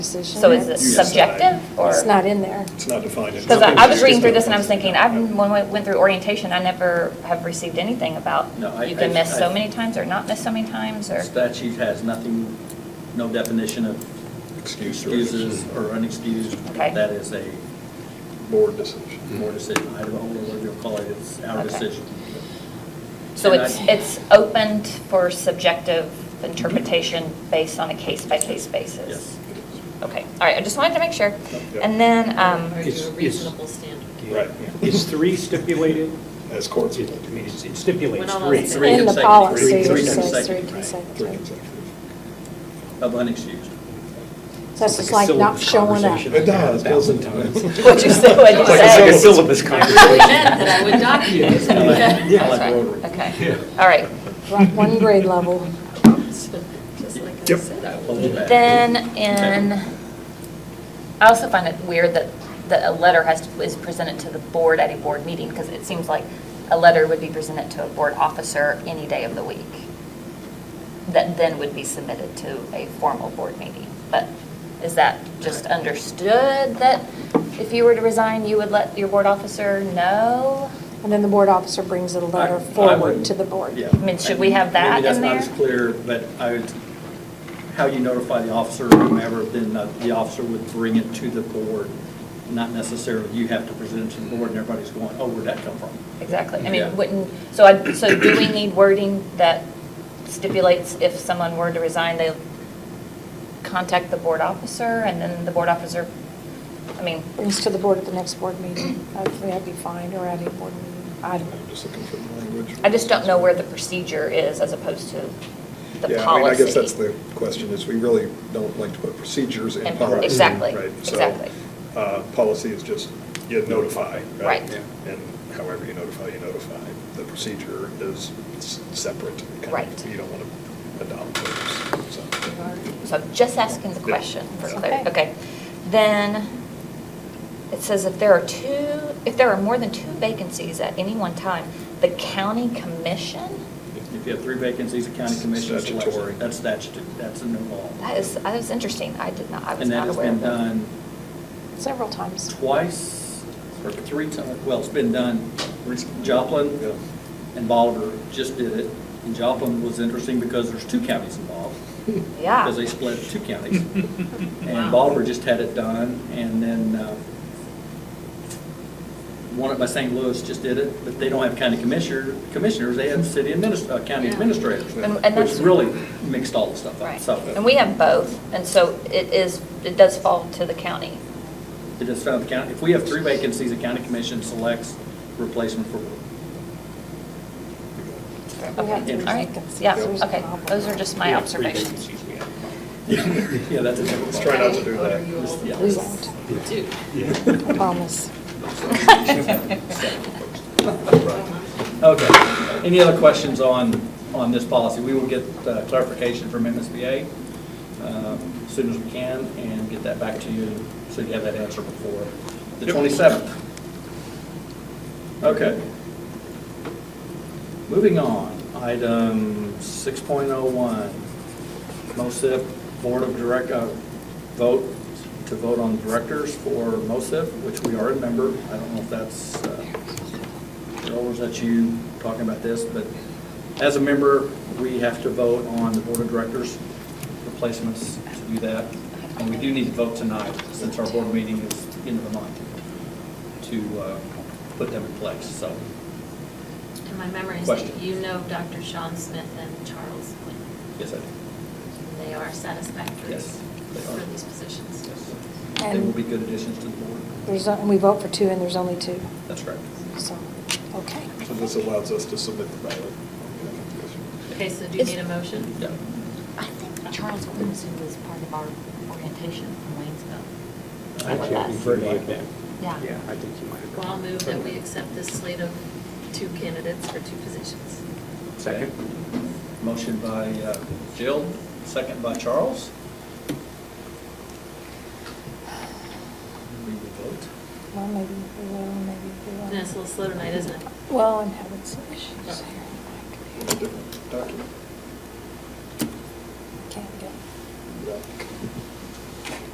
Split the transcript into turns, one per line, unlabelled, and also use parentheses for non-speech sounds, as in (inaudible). decision.
So is it
You decide.
subjective or?
It's not in there.
It's not defined. in-
Because I I was reading through this and I was thinking, I, when we went through orientation, I never have received anything about
No, I-
you can
I-
miss so
I-
many times or not miss so many times or.
Statute has nothing, no definition of
Excuse or
excuses or unexcused.
Okay.
That is a
board decision.
board decision. I don't know what you'll call it, it's our
Okay.
decision.
So
And I-
it's, it's opened for subjective interpretation based on a case-by-case basis?
Yes.
Okay, all right, I just wanted to make sure.
Yep.
And then, um,
Or
It's-
do a
it's-
reasonable standard.
Right.
Is three stipulated?
As courts.
It- I mean, it's- it
We're
stipulates
not
three.
allowed to-
Three
In the
consecutive.
policy, it
Three
says three
consecutive, right.
Three
consecutive.
consecutive.
Of unexcused.
So it's just like not showing up.
It does, doesn't it?
What'd you say? What'd you
It's (laughs) like a- like a
say?
syllabus
I really meant
conversation.
that I would document
I like-
it.
I like
Sorry.
rotary.
Okay, all
(laughs)
right.
Right, one grade level.
(laughs) Just like I
Yep.
said, I
That
would.
holds it back.
Then in,
Okay.
I also find it weird that, that a letter has, to- is presented to the board at a board meeting, because it seems like a letter would be presented to a board officer any day of the week, that then would be submitted to a formal board meeting. But is that just understood, that if you were to resign, you would let your board officer know?
And then the board officer brings a letter
I- I
forward
wouldn't-
to the board.
Yeah.
I mean, should we have that
Maybe that's
in
not
there?
as clear, but I would, how you notify the officer or whomever, then uh, the the officer would bring it to the board. Not necessarily, you have to present it to the board and everybody's going, oh, where'd that come from?
Exactly. I
Yeah.
mean, wouldn't, so I, so do we need wording that stipulates if someone were to resign, they contact the board officer and then the board officer, I mean,
Brings to the board at the next board meeting. Hopefully that'd be fine, or at a board meeting. I
I'm
don't know.
just looking for the language.
I just don't know where the procedure is as opposed to the policy.
Yeah, I mean, I guess that's the question, is we really don't like to put procedures in
And-
policy.
exactly,
right? So,
exactly.
uh, Policy is just, you notify, right?
Right.
And however you notify, you notify. The procedure is s- separate. kind of.
Right.
You don't want to adopt those, so.
So I'm just asking the
Yeah.
question for
Yeah.
clarity.
Okay.
Okay. Then it says if there are two, if there are more than two vacancies at any one time, the county commission?
If you have three vacancies, a county commission selects. it.
Statutory.
That's statute, that's a new law.
That is, that is interesting. I did not, I was
And that
not
has
aware
been
of that.
done
Several times.
twice, or three times, well, it's been done,
Yeah.
Joplin and Bolivar just did it. And Joplin was interesting because there's two counties involved.
(laughs) Yeah.
Because they split
(laughs)
two
(laughs)
counties. And
Wow.
Bolivar just had it done, and then uh, one up by St. Louis just did it, but they don't have county commissioner, commissioners, they have city adminis, uh, county
Yeah.
administrators.
And- and that's-
Which really mixed all the stuff up,
Right.
so. uh,
And we have both, and so it is, it does fall to the county.
It is found, county, if we have three vacancies, the county commission selects replacement for one.
We
Okay,
have three
all right,
vacancies.
yeah,
There's a
okay,
problem.
those are just
We
my
have three
observations.
(laughs)
vacancies we
(coughs)
have.
Yeah, that's a different
Let's
ball.
try not to do
What
that.
are you all
Just- yeah.
We won't,
do?
Yeah.
I promise.
(laughs)
Okay. Any other questions on, on this policy? We will get uh, clarification from MSBA um, as soon as we can and get that back to you so you have that answer before the 27th. Okay. Moving on, item 6.01, MOSIP Board of Direct, uh, vote, to vote on directors for MOSIP, which we are a member. I don't know if that's, uh, Joel, was that you talking about this? But as a member, we have to vote on the Board of Directors replacements to do that. And we do need to vote tonight, since our board meeting is end of the month, to uh, put them in place, so.
And my memory is
Question.
that you know Dr. Sean Smith and Charles Quinn.
Yes, I do.
They are satisfactory
Yes, they are.
for these positions.
Yes. They
And-
will be good additions to the board.
There's, and we vote for two, and there's only two,
That's correct.
so, okay.
So this allows us to submit the ballot.
Okay, so do you
It's-
need a motion?
Yeah.
I think Charles Williamson was part of our orientation from Waynesville.
Actually, I think you might have been.
Yeah.
I think you might have
Well,
been.
I'll move that we accept this slate of two candidates for two positions.
Second?
Motion by uh, Jill, second by Charles. We will vote.
Well, maybe we will, maybe we
And
won't.
it's a little slow tonight, isn't it?
Well, I'm having some issues here. My computer
Document.
Can't get.
Yeah.